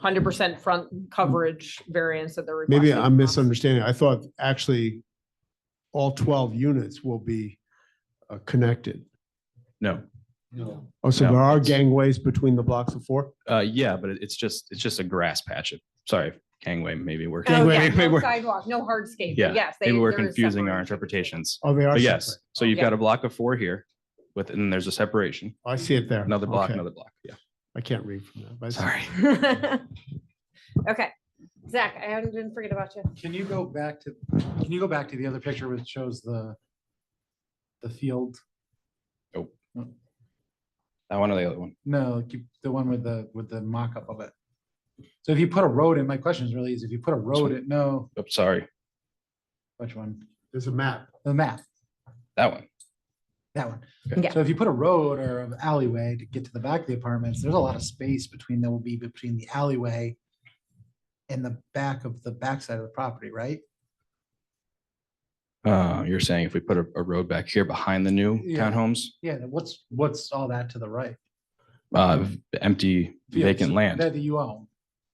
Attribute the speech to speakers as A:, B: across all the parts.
A: hundred percent front coverage variance that they're.
B: Maybe
A: requesting.
B: I'm misunderstanding. I thought actually all twelve units will be uh, connected.
C: No,
D: No.
B: Oh, so
C: No,
B: there are
C: it's-
B: gangways between the blocks of four?
C: uh, yeah, but it- it's just, it's just a grass patch. It- Sorry, gangway maybe we're,
A: Oh,
C: maybe
A: yeah, no
C: we're-
A: sidewalk, no hardscape,
C: Yeah,
A: but yes. they-
C: maybe we're
A: there is
C: confusing our
A: separation.
C: interpretations.
B: Oh, they are.
C: But yes,
B: separate.
C: so you've
A: Yeah.
C: got a block of four here with, and there's a separation,
B: I see it there.
C: another block,
B: Okay.
C: another block. Yeah,
B: I can't read from that. but I see-
C: sorry.
A: Okay, Zach, I haven't been forget about you.
D: Can you go back to, can you go back to the other picture which shows the, the field?
C: I want the other one.
D: No, keep the one with the, with the mock-up of it. So if you put a road in, my question is really is if you put a road in, no,
C: Oops, sorry,
D: which one?
B: There's a map.
D: The map,
C: that one.
D: that one.
A: Yeah.
D: So if you put a road or an alleyway to get to the back of the apartments, there's a lot of space between, there will be between the alleyway and the back of the backside of the property, right?
C: Uh, you're saying if we put a, a road back here behind the new
D: Yeah.
C: townhomes,
D: Yeah, what's, what's all that to the right?
C: uh, empty
D: Fields
C: vacant land.
D: That you own.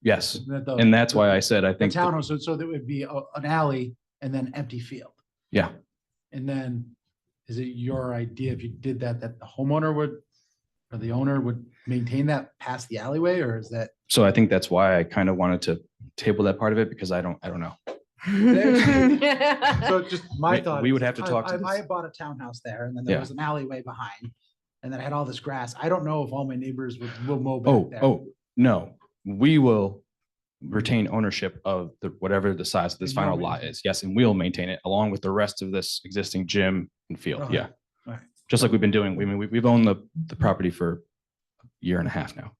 C: Yes,
D: that the-
C: and that's why I said I
D: The
C: think, that-
D: townhouse, so, so there would be a- an alley and then empty field.
C: yeah,
D: And then, is it your idea if you did that, that the homeowner would, or the owner would maintain that past the alleyway, or is that?
C: so I think that's why I kind of wanted to table that part of it because I don't, I don't know.
D: So just my
C: We-
D: thought.
C: we
D: is
C: would have to
D: I-
C: talk to
D: I- I
C: this.
D: bought a townhouse there and then there
C: Yeah.
D: was an alleyway behind, and then I had all this grass. I don't know if all my neighbors would, will mow back
C: Oh,
D: there.
C: oh, no, we will retain ownership of the, whatever the size of this
D: And you'll
C: final lot
D: maintain-
C: is. Yes, and we'll maintain it along with the rest of this existing gym and field.
D: Okay,
C: Yeah.
D: alright.
C: Just like we've been doing, we mean, we- we've owned the, the property for a year and a half now.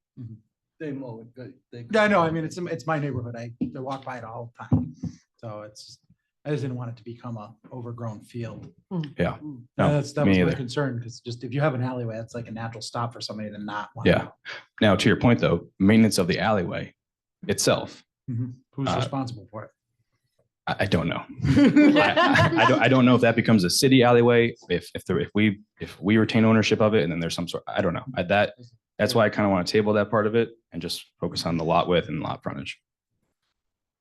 E: They mow it, they- they.
D: Yeah, I know. I mean, it's, it's my neighborhood. I, I walk by it all the time. So it's, I just didn't want it to become a overgrown field.
F: Hmm.
C: Yeah. No,
D: That's, that
C: me
D: was my
C: either.
D: concern, because just if you have an alleyway, that's like a natural stop for somebody to not. wanna
C: Yeah.
D: go.
C: Now, to your point though, maintenance of the alleyway itself,
D: Who's
C: Uh,
D: responsible for it?
C: I, I don't know. I, I- I don't, I don't know if that becomes a city alleyway, if, if, there- if we, if we retain ownership of it and then there's some sort, I don't know. I- That, that's why I kind of want to table that part of it and just focus on the lot width and lot frontage.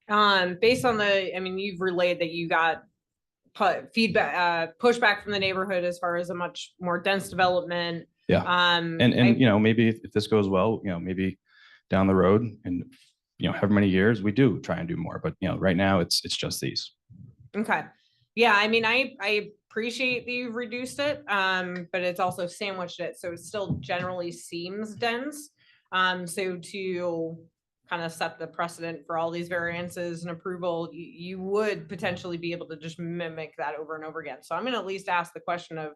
A: Um, based on the, I mean, you've relayed that you got pu- feedback, uh, pushback from the neighborhood as far as a much more dense development.
C: Yeah.
A: Um.
C: And,
A: I-
C: and, you know, maybe if if this goes well, you know, maybe down the road and, you know, however many years, we do try and do more, but you know, right now it's, it's just these.
A: Okay. Yeah, I mean, I, I appreciate that you've reduced it, um, but it's also sandwiched it, so it still generally seems dense. Um, so to kind of set the precedent for all these variances and approval, you, you would potentially be able to just mimic that over and over again. So I'm gonna at least ask the question of,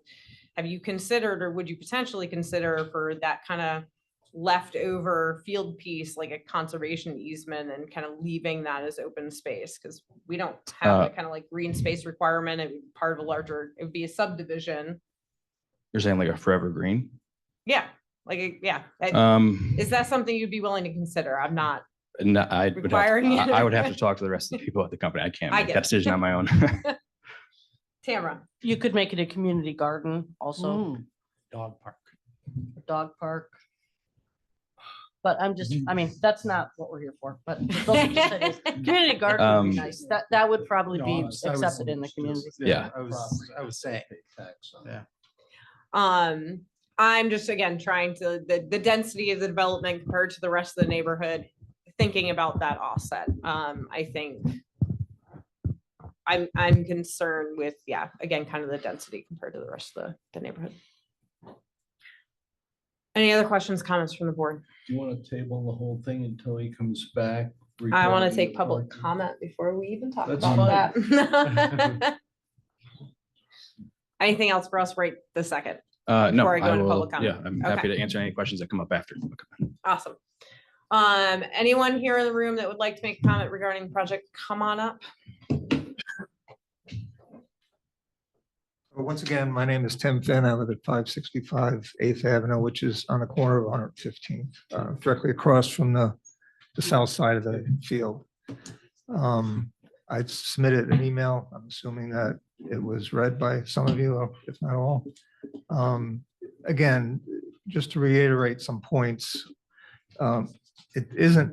A: have you considered or would you potentially consider for that kind of leftover field piece, like a conservation easement and kind of leaving that as open space? Because we don't have
C: Uh,
A: that kind of like green space requirement and part of a larger, it would be a subdivision.
C: You're saying like a forever green?
A: Yeah, like, a- yeah. that-
C: Um,
A: Is that something you'd be willing to consider? I'm not,
C: no, I would, have-
A: requiring
C: I
A: it?
C: I would have to talk to the rest of the people at the company. I can't
A: I
C: make
A: get
C: that
A: it.
C: decision on my own.
A: Tamara.
F: You could make it a community garden also,
D: Dog park.
F: a dog park. But I'm just, I mean, that's not what we're here for, but those are just ideas. community garden would be
C: Um,
F: nice. That, that would probably
D: No,
F: be
D: I was- I was
F: accepted in the
D: just-
F: community.
C: Yeah.
D: I was, I was saying. Yeah.
A: Um, I'm just again trying to, the, the density of the development compared to the rest of the neighborhood, thinking about that offset. Um, I think I'm, I'm concerned with, yeah, again, kind of the density compared to the rest of the, the neighborhood. Any other questions, comments from the board?
E: Do you want to table the whole thing until he comes
A: I
E: back?
A: want
E: regarding
A: to take
E: the
A: public
E: parking?
A: comment before we even talk
E: That's
A: about that. Anything else for us right this second?
C: Uh, no,
A: Before I go
C: I
A: into
C: will,
A: public comment.
C: yeah, I'm
A: Okay.
C: happy to answer any questions that come up after.
A: Awesome. Um, anyone here in the room that would like to make a comment regarding the project, come on up.
G: Well, Once again, my name is Tim Finn. I live at 565 Eighth Avenue, which is on the corner of 115th, uh, directly across from the, the south side of the field. Um, I've submitted an email. I'm assuming that it was read by some of you, if not all. Um, Again, just to reiterate some points. um, it isn't